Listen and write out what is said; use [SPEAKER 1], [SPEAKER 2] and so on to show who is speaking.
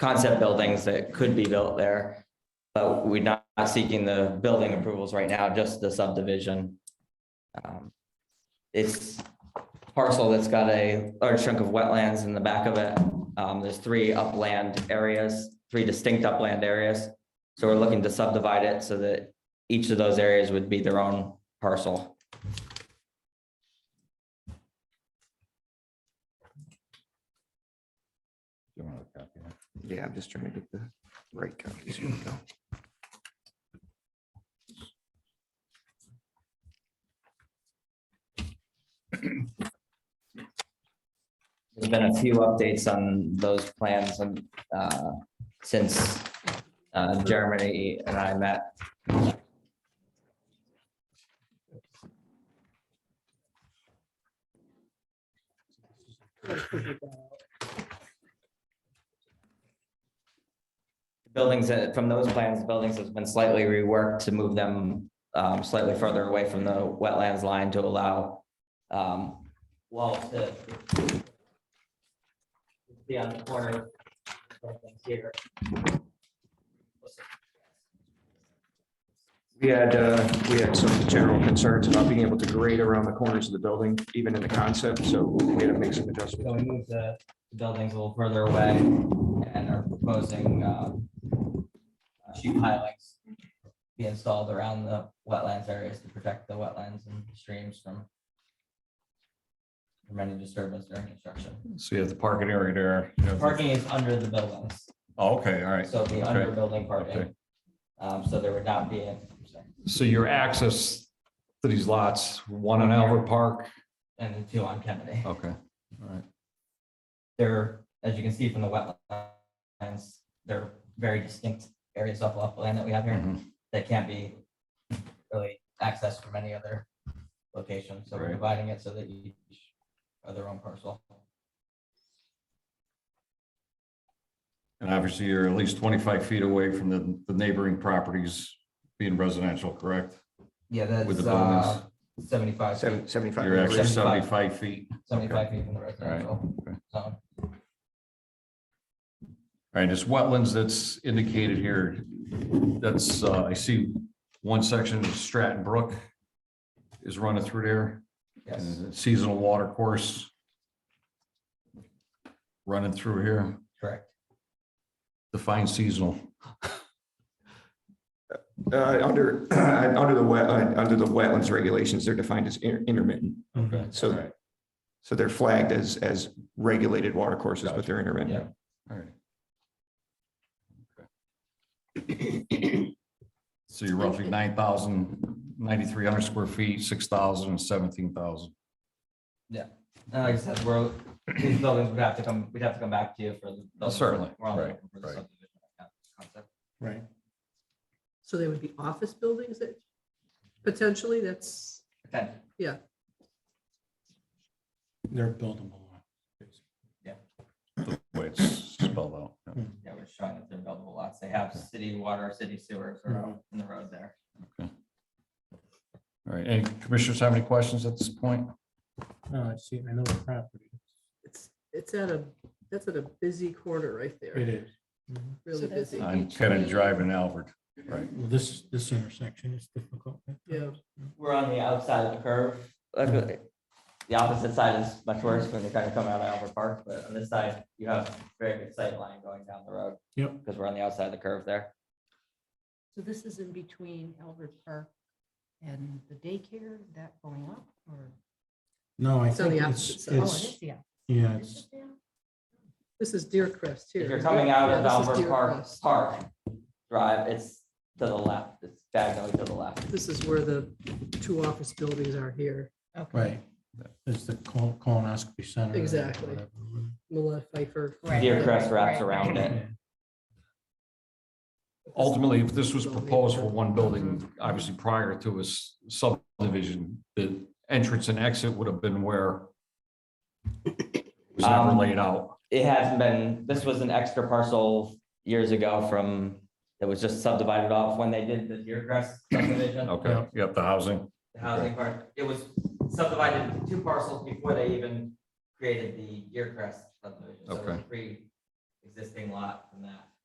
[SPEAKER 1] concept buildings that could be built there. But we're not seeking the building approvals right now, just the subdivision. Um, It's parcel that's got a large chunk of wetlands in the back of it. Um, there's three upland areas, three distinct upland areas. So we're looking to subdivide it so that each of those areas would be their own parcel.
[SPEAKER 2] You want to copy that?
[SPEAKER 3] Yeah, I'm just trying to get the right copies. Here we go.
[SPEAKER 1] There's been a few updates on those plans and, uh, since, uh, Germany and I met. Buildings, that- from those plans, buildings has been slightly reworked to move them, um, slightly further away from the wetlands line to allow, um, walls to be on the corner of here.
[SPEAKER 3] We had, uh, we had some general concerns about being able to grade around the corners of the building, even in the concept, so we had to make some adjustments.
[SPEAKER 1] So we moved the the buildings a little further away and are proposing um, uh, sheet pilings be installed around the wetlands areas to protect the wetlands and streams from from any disturbance during construction.
[SPEAKER 2] So you have the parking area there. you have the-
[SPEAKER 1] Parking is under the buildings,
[SPEAKER 2] Oh, Okay, all right.
[SPEAKER 1] so the under building
[SPEAKER 2] okay.
[SPEAKER 1] parking. Um, So there would not be a
[SPEAKER 2] So your access to these lots, one on Albert Park.
[SPEAKER 1] and the two on Kennedy.
[SPEAKER 2] Okay, all right.
[SPEAKER 1] they're, as you can see from the wetlands, they're very distinct areas of upland that we have here
[SPEAKER 2] Mhm.
[SPEAKER 1] that can't be really accessed from any other location. So we're
[SPEAKER 2] Right.
[SPEAKER 1] dividing it so that each are their own parcel.
[SPEAKER 2] And obviously you're at least twenty-five feet away from the, the neighboring properties being residential, correct?
[SPEAKER 1] Yeah,
[SPEAKER 2] With the
[SPEAKER 1] that's uh,
[SPEAKER 2] buildings,
[SPEAKER 1] seventy-five
[SPEAKER 3] Seven-
[SPEAKER 1] feet,
[SPEAKER 3] Seventy-five.
[SPEAKER 2] you're actually
[SPEAKER 1] Seventy-five.
[SPEAKER 2] seventy-five feet.
[SPEAKER 1] seventy-five feet from the residential
[SPEAKER 2] okay.
[SPEAKER 1] zone.
[SPEAKER 2] All right, it's wetlands that's indicated here. That's, uh, I see one section of Stratton Brook is running through there.
[SPEAKER 1] Yes,
[SPEAKER 2] and Seasonal water course running through here,
[SPEAKER 1] correct.
[SPEAKER 2] define seasonal.
[SPEAKER 3] Uh, under, under the wet, uh, under the wetlands regulations, they're defined as inter- intermittent.
[SPEAKER 1] Okay.
[SPEAKER 2] All
[SPEAKER 3] So,
[SPEAKER 2] right,
[SPEAKER 3] so they're flagged as, as regulated water courses, but they're intermittent.
[SPEAKER 2] all right. So you're roughly nine thousand, ninety-three hundred square feet, six thousand and seventeen thousand.
[SPEAKER 1] And like I said, we're, these buildings would have to come, we'd have to come back to you for the.
[SPEAKER 2] Well, certainly,
[SPEAKER 1] We're only
[SPEAKER 2] right,
[SPEAKER 1] looking for the
[SPEAKER 2] right.
[SPEAKER 1] subdivision concept.
[SPEAKER 3] Right.
[SPEAKER 4] So they would be office buildings that potentially that's,
[SPEAKER 1] Okay.
[SPEAKER 5] They're buildable.
[SPEAKER 2] Way it's spelled out. yeah.
[SPEAKER 1] Yeah, we're showing that they're buildable lots. They have city water, city sewers are out in the road there.
[SPEAKER 2] All right, any commissioners have any questions at this point?
[SPEAKER 5] Oh, I see, I know the property.
[SPEAKER 4] it's, it's at a, that's at a busy corner right
[SPEAKER 5] It
[SPEAKER 4] there,
[SPEAKER 5] is. Mhm.
[SPEAKER 4] really busy.
[SPEAKER 2] I'm kind of driving Albert.
[SPEAKER 5] Well, This, this intersection is difficult.
[SPEAKER 4] Yeah,
[SPEAKER 1] We're on the outside of the curve. Luckily, The opposite side is much worse when you're kind of coming out of Albert Park, but on this side, you have very good sight line going down the road.
[SPEAKER 5] Yep.
[SPEAKER 1] Because we're on the outside of the curve there.
[SPEAKER 6] So this is in between Albert Park and the daycare, that going up or?
[SPEAKER 5] No, I
[SPEAKER 4] It's on
[SPEAKER 5] think
[SPEAKER 4] the
[SPEAKER 5] it's,
[SPEAKER 4] opposite
[SPEAKER 6] Oh, it
[SPEAKER 5] it's,
[SPEAKER 6] is, yeah.
[SPEAKER 5] yeah,
[SPEAKER 6] Is
[SPEAKER 5] it's,
[SPEAKER 6] it there?
[SPEAKER 4] this is Deer Crest here.
[SPEAKER 1] If you're coming out
[SPEAKER 4] Yeah,
[SPEAKER 1] of
[SPEAKER 4] this is
[SPEAKER 1] Albert
[SPEAKER 4] Deer
[SPEAKER 1] Park,
[SPEAKER 4] Crest.
[SPEAKER 1] Park Drive, it's to the left. It's diagonally to the left.
[SPEAKER 4] This is where the two office buildings are here,
[SPEAKER 6] Okay.
[SPEAKER 5] right. It's the col- colonoscopy center. or
[SPEAKER 4] Exactly.
[SPEAKER 5] whatever.
[SPEAKER 4] Mila Pfeiffer.
[SPEAKER 6] Right,
[SPEAKER 1] Deer
[SPEAKER 6] right,
[SPEAKER 1] crest
[SPEAKER 6] right,
[SPEAKER 1] wraps
[SPEAKER 6] right,
[SPEAKER 1] around
[SPEAKER 6] right.
[SPEAKER 1] it.
[SPEAKER 5] Yeah.
[SPEAKER 2] Ultimately, if this was proposed for one building, obviously prior to a s- subdivision, the entrance and exit would have been where it was never
[SPEAKER 1] Um,
[SPEAKER 2] laid out.
[SPEAKER 1] it hasn't been, this was an extra parcel years ago from, that was just subdivided off when they did the Deergrass subdivision.
[SPEAKER 2] Okay, yep, the housing.
[SPEAKER 1] The housing part, it was subdivided into two parcels before they even created the Deergrass subdivision. So it was
[SPEAKER 2] Okay.
[SPEAKER 1] Pre, existing lot from that